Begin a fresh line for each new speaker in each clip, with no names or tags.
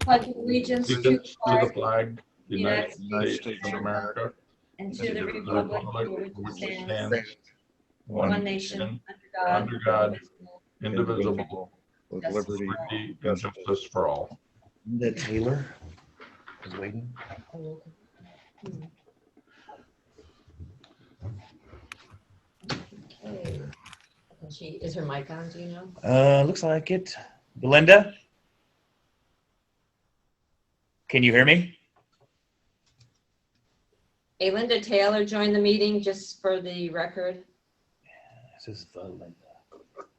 pledge allegiance to
Allegiance
the
to the
flag
flag, the United
United
States of America,
and
and
to the republic for which it stands,
one
one nation,
nation,
under God.
under indivisible,
with
Yes.
liberty.
liberty and justice for all.
Linda Taylor is waiting.
Okay. And She, is her mic on, do you know?
Uh, looks like it. Belinda? Can you hear me?
Alinda Taylor joined the meeting, just for the record.
This is Belinda.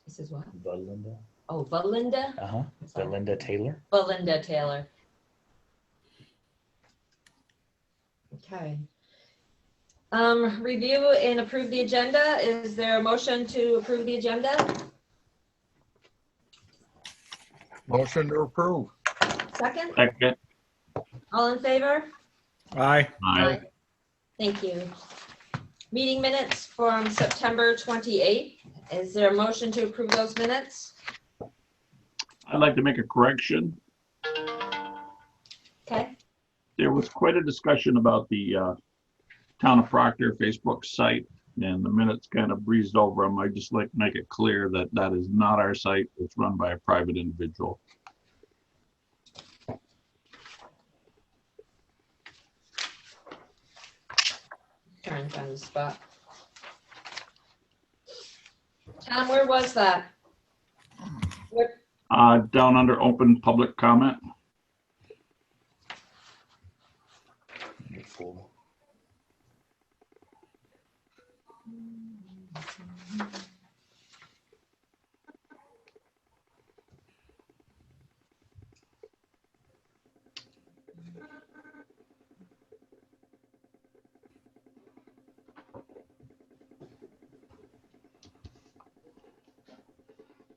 This is what?
Belinda?
Oh, Belinda?
Uh huh. Belinda Taylor.
Belinda Taylor. Okay. Um, review and approve the agenda. Is there a motion to approve the agenda?
Motion to approve.
Second?
Second.
All in favor?
Aye.
Aye.
Thank you. Meeting minutes from September 28th. Is there a motion to approve those minutes?
I'd like to make a correction.
Okay,
There was quite a discussion about the uh, Town of Proctor Facebook site, and the minutes kind of breezed over them. I'd just like to make it clear that that is not our site. It's run by a private individual.
Karen's on the spot. Tom, where was that? Where-
Uh, Down under open public comment,
Wonderful.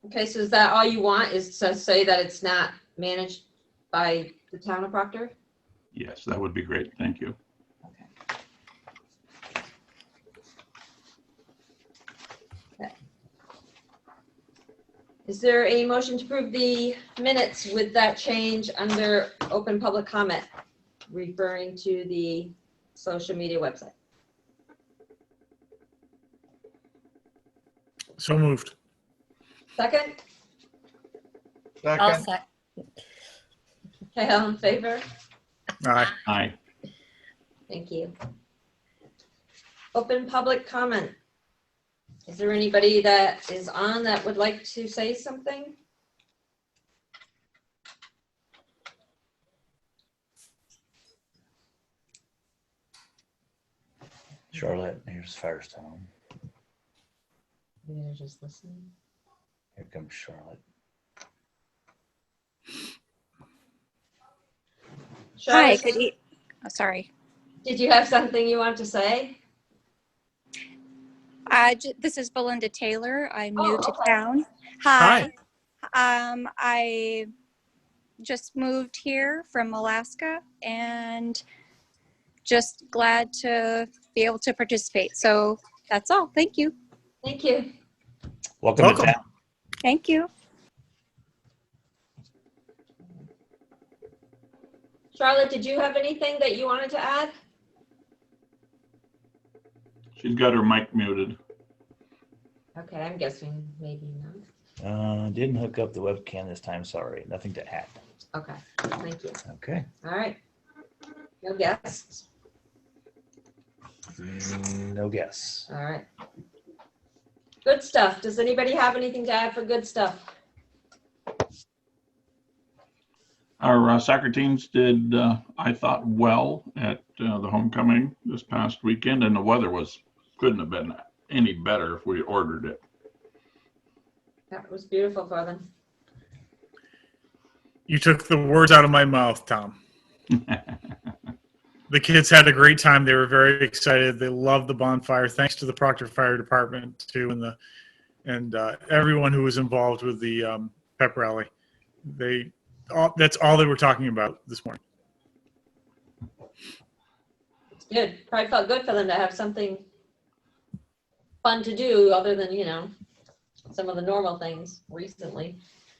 Okay, so is that all you want, is to say that it's not managed by the town of Proctor?
yes, that would be great. Thank you.
Is there a motion to approve the minutes with that change under open public comment, referring to the social media website?
So moved.
Second?
Second.
Okay, all in favor?
Aye.
Aye.
Thank you. Open public comment. Is there anybody that is on that would like to say something?
Charlotte, here's Firestone.
Maybe they're just listening.
Here comes Charlotte.
Hi,
Charlotte,
good e- oh, sorry.
did you have something you want to say?
Uh, j- this is Belinda Taylor. I'm
Oh,
new to
okay.
town. Hi. Um, I just moved here from Alaska and just glad to be able to participate. So that's all. Thank you.
Thank you.
Welcome,
Welcome.
to town.
Thank you.
Charlotte, did you have anything that you wanted to add?
She's got her mic muted.
Okay, I'm guessing maybe not.
Uh, didn't hook up the webcam this time. Sorry. Nothing to add.
Okay, thank you.
Okay.
All right. No guests.
Mm, No guess.
All right. Good stuff. Does anybody have anything to add for good stuff?
Our uh, soccer teams did, uh, I thought, well at uh, the homecoming this past weekend, and the weather was couldn't have been any better if we ordered it.
That was beautiful for them.
You took the words out of my mouth, Tom. The kids had a great time. They were very excited. They loved the bonfire. Thanks to the Proctor Fire Department too, and the and uh, everyone who was involved with the um, pep rally. They all, that's all they were talking about this morning.
It's good. Probably felt good for them to have something fun to do other than, you know, some of the normal things recently.